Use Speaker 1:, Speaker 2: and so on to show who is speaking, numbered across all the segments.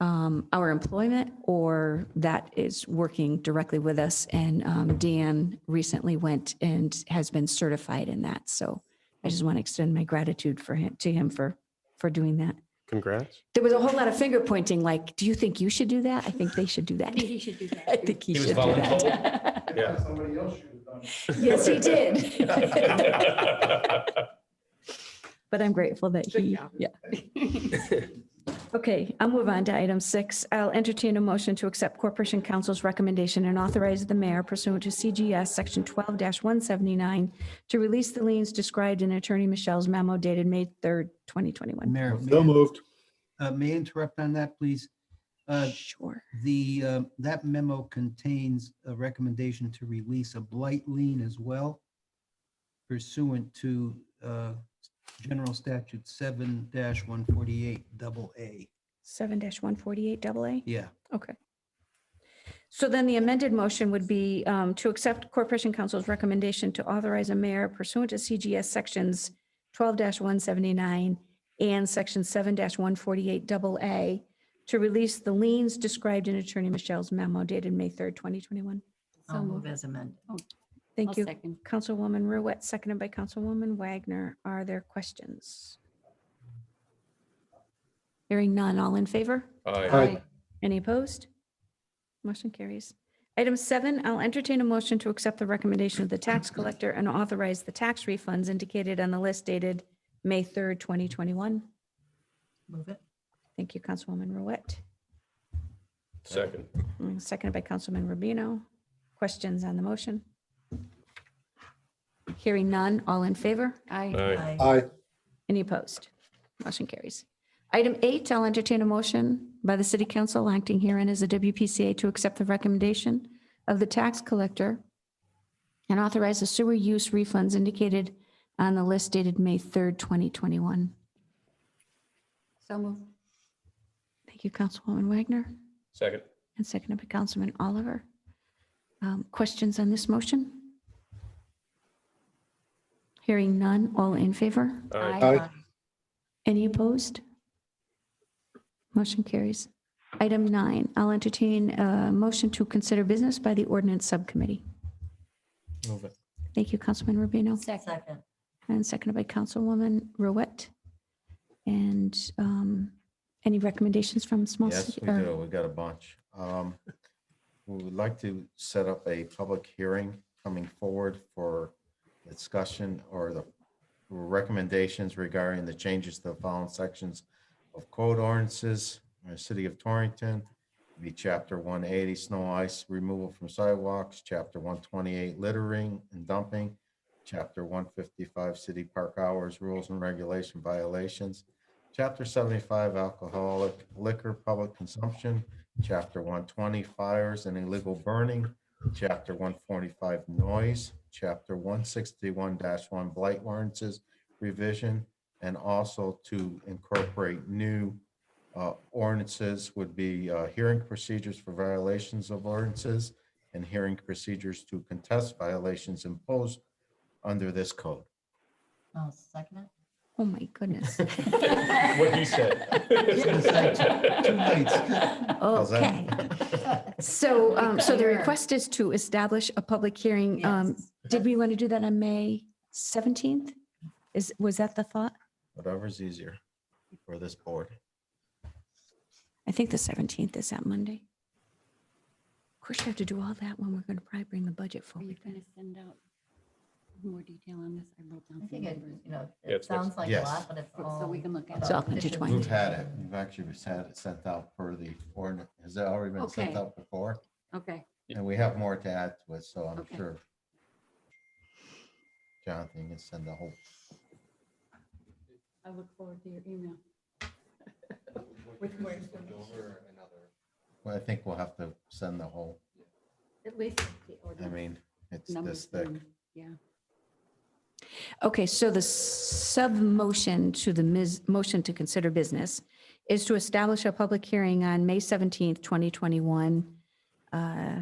Speaker 1: um, our employment or that is working directly with us. And um, Dan recently went and has been certified in that. So I just want to extend my gratitude for him, to him for, for doing that.
Speaker 2: Congrats.
Speaker 1: There was a whole lot of finger pointing, like, do you think you should do that? I think they should do that.
Speaker 3: Maybe he should do
Speaker 1: I
Speaker 3: that.
Speaker 1: think he
Speaker 4: He was
Speaker 1: should do that.
Speaker 2: Yeah.
Speaker 5: Somebody else should have done it.
Speaker 1: Yes, he did. But I'm grateful that
Speaker 3: Good
Speaker 1: he,
Speaker 3: job.
Speaker 1: yeah. Okay, I'll move on to item six. I'll entertain a motion to accept Corporation Council's recommendation and authorize the mayor pursuant to CGS Section 12-179 to release the liens described in Attorney Michelle's memo dated May 3rd, 2021.
Speaker 6: Mayor,
Speaker 2: No
Speaker 6: may
Speaker 2: moved.
Speaker 6: I- uh, may I interrupt on that, please? Uh,
Speaker 1: Sure.
Speaker 6: The, uh, that memo contains a recommendation to release a blight lien as well pursuant to uh, General Statute 7-148 double A.
Speaker 1: 7-148 double A.
Speaker 6: Yeah.
Speaker 1: Okay. So then the amended motion would be um, to accept Corporation Council's recommendation to authorize a mayor pursuant to CGS Sections 12-179 and Section 7-148 double A to release the liens described in Attorney Michelle's memo dated May 3rd, 2021.
Speaker 3: I'll move as amended. Oh, I'll
Speaker 1: Thank you.
Speaker 3: second.
Speaker 1: Councilwoman Ruette, seconded by Councilwoman Wagner. Are there questions? Hearing none. All in favor?
Speaker 4: Aye.
Speaker 1: Any opposed? Motion carries. Item seven, I'll entertain a motion to accept the recommendation of the tax collector and authorize the tax refunds indicated on the list dated May 3rd, 2021.
Speaker 3: Move it.
Speaker 1: Thank you, Councilwoman Ruette.
Speaker 2: Second.
Speaker 1: And Seconded by Councilman Rubino. Questions on the motion? Hearing none. All in favor?
Speaker 3: Aye.
Speaker 2: Aye.
Speaker 5: Aye.
Speaker 1: Any opposed? Motion carries. Item eight, I'll entertain a motion by the city council acting herein as a WPCA to accept the recommendation of the tax collector and authorize the sewer use refunds indicated on the list dated May 3rd, 2021.
Speaker 3: So move.
Speaker 1: Thank you, Councilwoman Wagner,
Speaker 4: Second.
Speaker 1: and seconded by Councilman Oliver. Um, Questions on this motion? Hearing none, all in favor?
Speaker 4: Aye.
Speaker 5: Aye.
Speaker 1: Any opposed? Motion carries. Item nine, I'll entertain a motion to consider business by the ordinance subcommittee.
Speaker 4: Move it.
Speaker 1: Thank you, Councilman Rubino,
Speaker 3: Second.
Speaker 1: and seconded by Councilwoman Ruette. And um, any recommendations from small?
Speaker 7: Yes,
Speaker 1: city-
Speaker 7: we
Speaker 1: or-
Speaker 7: do. We got a bunch. Um, We would like to set up a public hearing coming forward for discussion or the recommendations regarding the changes to the following sections of code ordinances in the city of Torrington. Be chapter one eighty, snow ice removal from sidewalks, chapter one twenty-eight, littering and dumping, chapter one fifty-five, city park hours, rules and regulation violations, Chapter 75 Alcoholic Liquor Public Consumption, Chapter 120 Fires and Illegal Burning, Chapter 145 Noise, Chapter 161-1 Blight Variances Revision, and also to incorporate new uh, ordinances would be uh, hearing procedures for violations of ordinances and hearing procedures to contest violations imposed under this code.
Speaker 3: I'll second
Speaker 1: Oh, my goodness.
Speaker 4: What he said.
Speaker 6: Two nights.
Speaker 7: How's that?
Speaker 1: Okay. So, um, so the
Speaker 3: Sure.
Speaker 1: request is to establish a public hearing. Um,
Speaker 3: Yes.
Speaker 1: Did we want to do that on May 17th? Is, was that the thought?
Speaker 7: Whatever's easier for this board.
Speaker 1: I think the 17th is that Monday. Of course, you have to do all that when we're going to probably bring the budget
Speaker 3: Are you
Speaker 1: forward.
Speaker 3: going to send out more detail on this? I wrote down.
Speaker 8: I think
Speaker 3: some
Speaker 8: it,
Speaker 3: numbers.
Speaker 8: you know,
Speaker 4: Yeah,
Speaker 8: it
Speaker 4: it's next-
Speaker 8: sounds like a
Speaker 7: Yes.
Speaker 8: lot, but it's all.
Speaker 3: So we can look at.
Speaker 1: It's
Speaker 3: it.
Speaker 1: all intertwined.
Speaker 7: We've had it. We've actually had it sent out for the ordinance. Has it already been sent
Speaker 3: Okay.
Speaker 7: out before?
Speaker 3: Okay.
Speaker 7: And we have more to add to it, so I'm
Speaker 3: Okay.
Speaker 7: sure Jonathan can send the whole.
Speaker 3: I look forward to your email.
Speaker 7: Well, I think we'll have to send the whole,
Speaker 3: At least the
Speaker 7: I
Speaker 3: ordinance
Speaker 7: mean, it's
Speaker 3: numbers
Speaker 7: this thick.
Speaker 3: in. Yeah.
Speaker 1: Okay, so the sub-motion to the mis- motion to consider business is to establish a public hearing on May 17th, 2021 uh,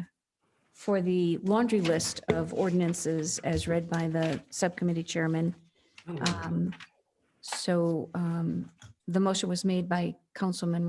Speaker 1: for the laundry list of ordinances as read by the subcommittee chairman. Um, So um, the motion was made by Councilman